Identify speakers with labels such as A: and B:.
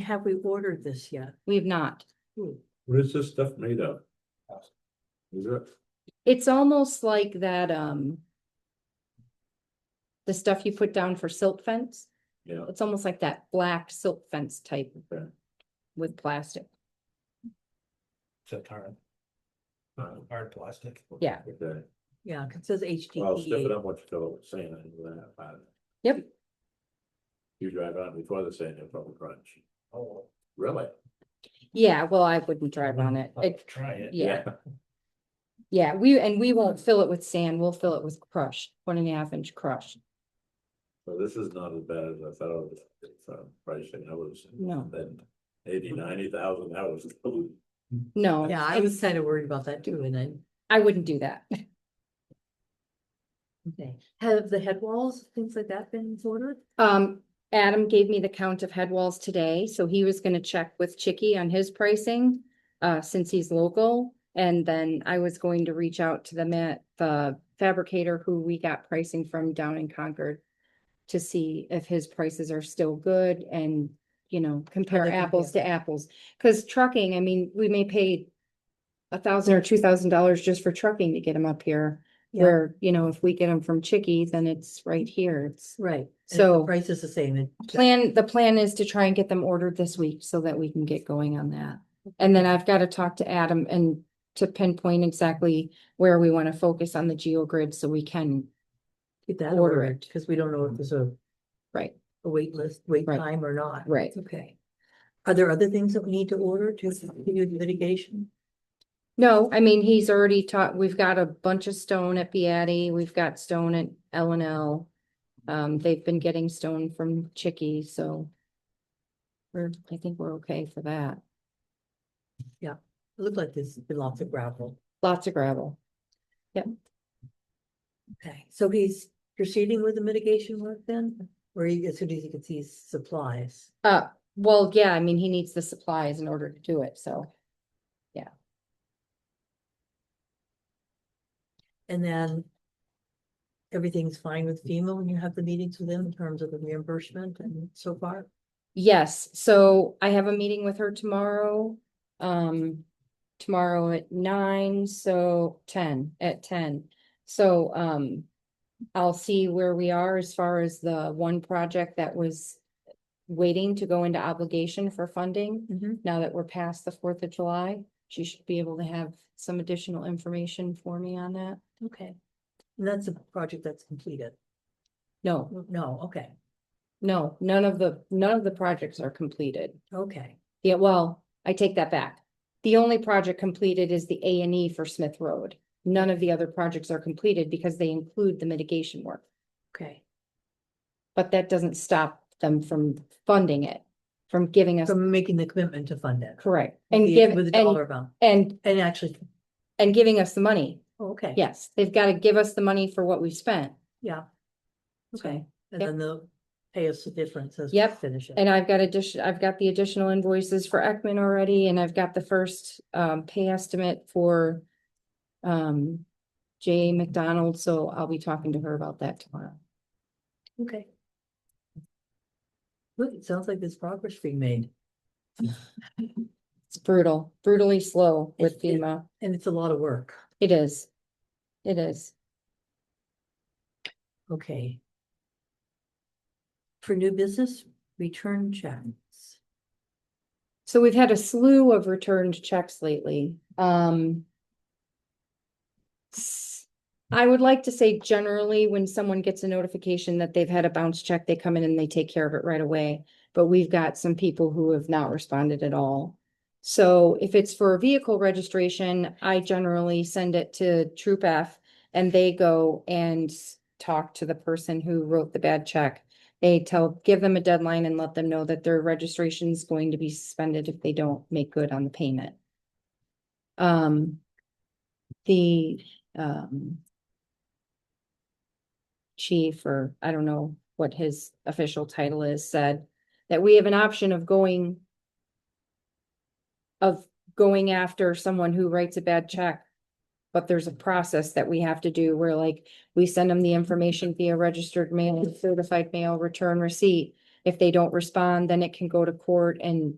A: have we ordered this yet?
B: We have not.
C: What is this stuff made of? Is it?
B: It's almost like that, um. The stuff you put down for silt fence.
C: Yeah.
B: It's almost like that black silt fence type.
C: Okay.
B: With plastic.
D: It's a hard.
C: Uh,
D: Hard plastic.
B: Yeah. E.
C: Okay,
A: Yeah, 'cause it says
C: well, stepping
A: HDPE.
C: up what you told was saying, I knew that about it.
B: Yep.
C: You drive on before the sand, you'll probably crunch.
D: Oh,
C: Really?
B: Yeah, well, I wouldn't drive on it.
D: I'll
B: It,
D: Try it.
B: yeah, yeah, we, and we won't fill it with sand. We'll fill it with crushed, one and a half inch crushed.
C: So this is not as bad as I thought it was, from pricing, I was.
B: No.
C: Then eighty, ninety thousand, that was.
B: No.
A: Yeah, I was
B: it's-
A: kind of worried about that too, and then,
B: I wouldn't do that.
A: okay, have the head walls, things like that been ordered?
B: Um, Adam gave me the count of head walls today, so he was gonna check with Chicky on his pricing, uh, since he's local. And then I was going to reach out to the ma- the fabricator who we got pricing from down in Concord to see if his prices are still good and, you know, compare
A: they compare?
B: apples to apples. Cause trucking, I mean, we may pay a thousand or two thousand dollars just for trucking to get them up here.
A: Yeah.
B: Where, you know, if we get them from Chicky, then it's right here. It's
A: Right. and if the
B: So-
A: Price is the same, and
B: plan, the plan is to try and get them ordered this week so that we can get going on that. And then I've got to talk to Adam and to pinpoint exactly where we want to focus on the GeoGrid so we can,
A: get that
B: Order
A: ordered,
B: it.
A: because we don't know if there's a,
B: right,
A: a wait list, wait
B: Right.
A: time or not.
B: right.
A: Okay. Are there other things that we need to order to continue the litigation?
B: No, I mean, he's already taught, we've got a bunch of stone at Beatty, we've got stone at L and L. Um, they've been getting stone from Chicky, so we're, I think we're okay for that.
A: It looked like there's been lots of gravel.
B: Lots of gravel.
A: Okay, so he's proceeding with the mitigation work then, or he, as soon as he gets these supplies?
B: Uh, well, yeah, I mean, he needs the supplies in order to do it, so.
A: And then everything's fine with FEMA when you have the meetings with them in terms of the reimbursement and so far?
B: Yes, so I have a meeting with her tomorrow, um, tomorrow at nine, so ten, at ten. So, um, I'll see where we are as far as the one project that was waiting to go into obligation for funding. Now that we're past the Fourth of July, she should be able to have some additional information for me on that.
A: Okay. And that's a project that's completed?
B: No,
A: No, okay,
B: no, none of the, none of the projects are completed.
A: okay,
B: Yeah, well, I take that back. The only project completed is the A and E for Smith Road. None of the other projects are completed because they include the mitigation work,
A: okay.
B: but that doesn't stop them from funding it, from giving us,
A: From making the commitment to fund it.
B: correct,
A: with
B: and
A: the-
B: give,
A: With a
B: and,
A: dollar amount,
B: and,
A: and actually,
B: and giving us the money.
A: oh, okay.
B: Yes, they've got to give us the money for what we've spent.
A: Yeah. Okay, and
B: Yep.
A: then they'll pay us the difference as we
B: Yep,
A: finish it.
B: And I've got addition, I've got the additional invoices for Ekman already, and I've got the first um pay estimate for. Um, J McDonald, so I'll be talking to her about that tomorrow.
A: Okay. Look, it sounds like there's progress being made,
B: It's brutal, brutally slow with
A: It- it-
B: FEMA.
A: and it's a lot of work.
B: It is. It is.
A: Okay. For new business, return checks.
B: So we've had a slew of returned checks lately. Um. s- I would like to say generally, when someone gets a notification that they've had a bounce check, they come in and they take care of it right away. But we've got some people who have not responded at all. So if it's for a vehicle registration, I generally send it to Troop F and they go and s- talk to the person who wrote the bad check they tell, give them a deadline and let them know that their registration is going to be suspended if they don't make good on the payment. Um, the, um, chief, or I don't know what his official title is, said that we have an option of going of going after someone who writes a bad check. But there's a process that we have to do where like, we send them the information via registered mail, certified mail, return receipt. If they don't respond, then it can go to court and